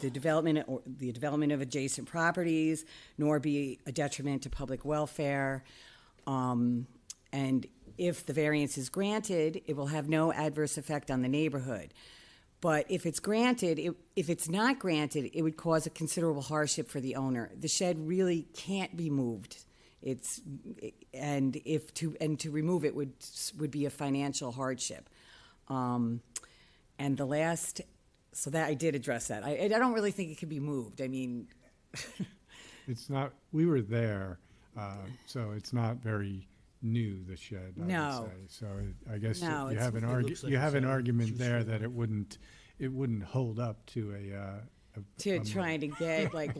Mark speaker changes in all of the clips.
Speaker 1: the development or the development of adjacent properties, nor be a detriment to public welfare. Um, and if the variance is granted, it will have no adverse effect on the neighborhood. But if it's granted, it, if it's not granted, it would cause a considerable hardship for the owner. The shed really can't be moved. It's and if to and to remove it would would be a financial hardship. Um, and the last, so that I did address that. I, I don't really think it could be moved. I mean,
Speaker 2: It's not, we were there, uh, so it's not very new, the shed, I
Speaker 1: No.
Speaker 2: would say. So it- I guess
Speaker 1: No,
Speaker 2: you
Speaker 1: it's-
Speaker 2: have an
Speaker 3: It
Speaker 2: argu,
Speaker 3: looks like
Speaker 2: you
Speaker 3: it's
Speaker 2: have an
Speaker 3: a
Speaker 2: argument there
Speaker 3: two-story.
Speaker 2: that it wouldn't, it wouldn't hold up to a, uh, a-
Speaker 1: to
Speaker 2: a-
Speaker 1: trying to get like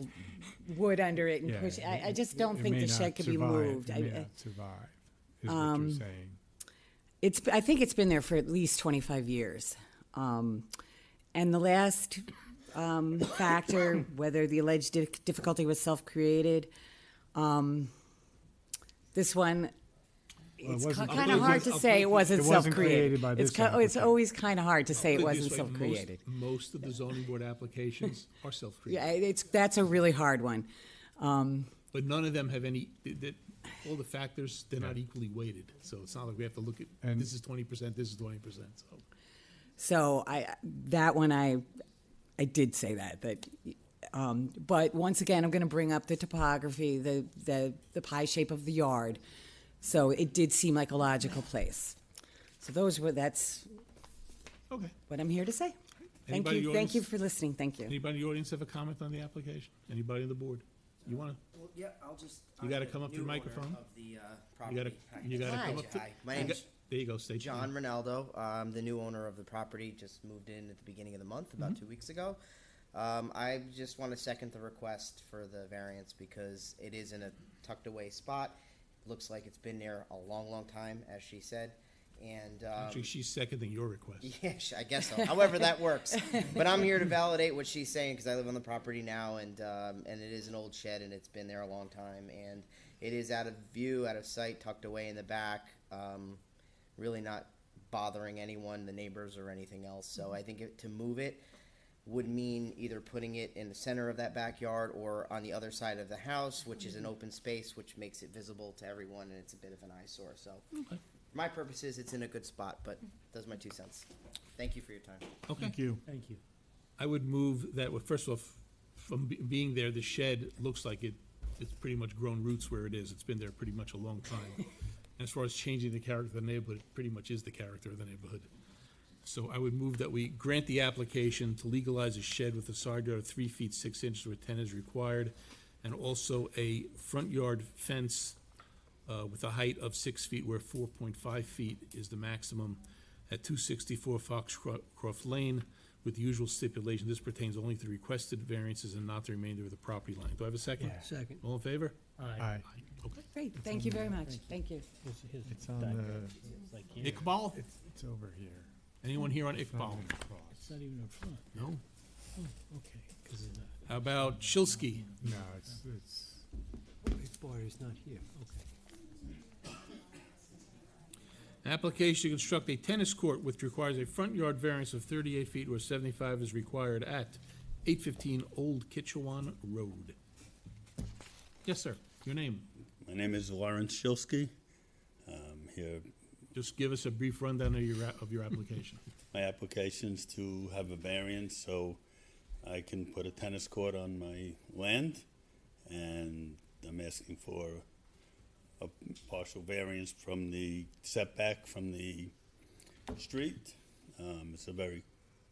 Speaker 1: wood under it and
Speaker 2: yeah,
Speaker 1: push. I, I
Speaker 2: it-
Speaker 1: just
Speaker 2: it
Speaker 1: don't think
Speaker 2: may
Speaker 1: the
Speaker 2: not
Speaker 1: shed could be
Speaker 2: survive.
Speaker 1: moved.
Speaker 2: It may
Speaker 1: I, Um,
Speaker 2: not survive, is what you're saying.
Speaker 1: It's, I think it's been there for at least 25 years. Um, and the last um, factor, whether the alleged di- difficulty was self created, um, this one,
Speaker 2: it
Speaker 1: it's
Speaker 2: wasn't-
Speaker 1: kind
Speaker 3: it
Speaker 1: of
Speaker 3: was-
Speaker 1: hard to say it wasn't
Speaker 2: it
Speaker 1: self
Speaker 2: wasn't
Speaker 1: created.
Speaker 2: created by
Speaker 1: It's,
Speaker 2: this
Speaker 1: ki- oh, it's
Speaker 2: applicant.
Speaker 1: always kind of hard to say it
Speaker 3: Put
Speaker 1: wasn't
Speaker 3: this way,
Speaker 1: self
Speaker 3: most-
Speaker 1: created.
Speaker 3: Most of the zoning board applications are
Speaker 1: Yeah,
Speaker 3: self-created,
Speaker 1: it's, that's a really hard one.
Speaker 3: but none of them have any, th- that, all the factors, they're not equally weighted. So it's not like we have to look at,
Speaker 2: And-
Speaker 3: this is twenty percent, this is twenty percent, so.
Speaker 1: So I that one I I did say that that um, but once again I'm going to bring up the topography the the the pie shape of the yard. So it did seem like a logical place. So those were that's
Speaker 3: Okay.
Speaker 1: what I'm here to say. Thank
Speaker 3: Anybody in
Speaker 1: you.
Speaker 3: the
Speaker 1: Thank you
Speaker 3: audience?
Speaker 1: for listening. Thank you.
Speaker 3: Anybody in the audience have a comment on the application? Anybody on the board? You wanna,
Speaker 4: Well, yeah, I'll just.
Speaker 3: You
Speaker 4: I'm
Speaker 3: gotta
Speaker 4: the
Speaker 3: come up to the
Speaker 4: new owner
Speaker 3: microphone.
Speaker 4: Of the, uh,
Speaker 3: you gotta,
Speaker 4: property. Hi.
Speaker 3: you gotta come
Speaker 1: Hi.
Speaker 3: up to.
Speaker 4: Hi, my
Speaker 3: you
Speaker 4: name's
Speaker 3: got- There you go, state your
Speaker 4: John
Speaker 3: name.
Speaker 4: Ronaldo. I'm the new owner of the property, just moved in at the beginning of the month,
Speaker 3: Mm-hmm.
Speaker 4: about two weeks ago. Um, I just want to second the request for the variance because it is in a tucked away spot. Looks like it's been there a long, long time, as she said, and, um.
Speaker 3: Actually, she's seconding your request.
Speaker 4: Yeah, sh- I guess so. However, that works. But I'm here to validate what she's saying because I live on the property now, and um, and it is an old shed, and it's been there a long time, and it is out of view, out of sight, tucked away in the back. Um, really not bothering anyone, the neighbors or anything else. So I think it, to move it would mean either putting it in the center of that backyard or on the other side of the house, which is an open space, which makes it visible to everyone, and it's a bit of an eyesore. So. For my purposes, it's in a good spot, but those are my two cents. Thank you for your time.
Speaker 3: Okay.
Speaker 2: you.
Speaker 5: Thank you.
Speaker 3: I would move that, well, first off, from be- being there, the shed looks like it, it's pretty much grown roots where it is. It's been there pretty much a long time. As far as changing the character of the neighborhood, it pretty much is the character of the neighborhood. So I would move that we grant the application to legalize a shed with a side yard of three feet six inches where ten is required, and also a front yard fence uh, with a height of six feet where four point five feet is the maximum at two sixty-four Foxcroft Lane with the usual stipulation. This pertains only to the requested variances and not the remainder of the property line. Do I have a second?
Speaker 2: Yeah.
Speaker 5: Second.
Speaker 3: All in favor?
Speaker 5: Aye.
Speaker 2: Aye.
Speaker 3: Okay.
Speaker 1: Great. Thank you very much. Thank you.
Speaker 5: His- his
Speaker 2: It's on
Speaker 5: diagram.
Speaker 2: the,
Speaker 5: It's like here.
Speaker 3: Iqbal?
Speaker 2: it's, it's over here.
Speaker 3: Anyone here on Iqbal?
Speaker 2: Not across.
Speaker 5: It's not even in front.
Speaker 3: No?
Speaker 5: Okay. 'cause it's not-
Speaker 3: How about Shilsky?
Speaker 2: No, it's, it's,
Speaker 5: Its border is not here. Okay.
Speaker 3: An application to construct a tennis court which requires a front yard variance of thirty-eight feet where seventy-five is required at eight fifteen Old Kitchewan Road. Yes, sir. Your name?
Speaker 6: My name is Lawrence Shilsky. Um, here,
Speaker 3: Just give us a brief rundown of your, a- of your application.
Speaker 6: my application's to have a variance so I can put a tennis court on my land, and I'm asking for a partial variance from the setback from the street. Um, it's a very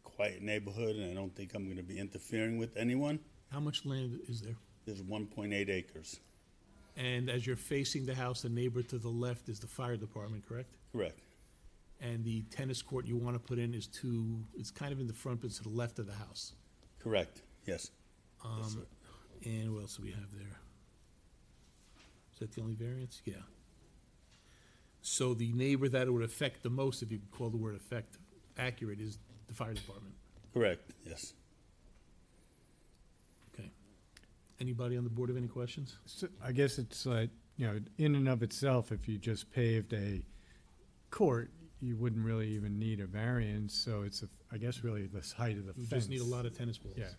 Speaker 6: quiet neighborhood, and I don't think I'm going to be interfering with anyone.
Speaker 3: How much land is there?
Speaker 6: There's 1.8 acres.
Speaker 3: And as you're facing the house, the neighbor to the left is the fire department, correct?
Speaker 6: Correct.
Speaker 3: And the tennis court you want to put in is to, it's kind of in the front, but it's to the left of the house.
Speaker 6: Correct. Yes. yes sir.
Speaker 3: And what else do we have there? Is that the only variance? Yeah. So the neighbor that it would affect the most, if you could call the word affect accurate, is the fire department.
Speaker 6: Correct. Yes.
Speaker 3: Okay. Anybody on the board have any questions?
Speaker 2: So I guess it's like, you know, in and of itself, if you just paved a court, you wouldn't really even need a variance, so it's, a- I guess really the height of the
Speaker 3: We
Speaker 2: fence.
Speaker 3: just need a lot of tennis balls.
Speaker 2: Yeah.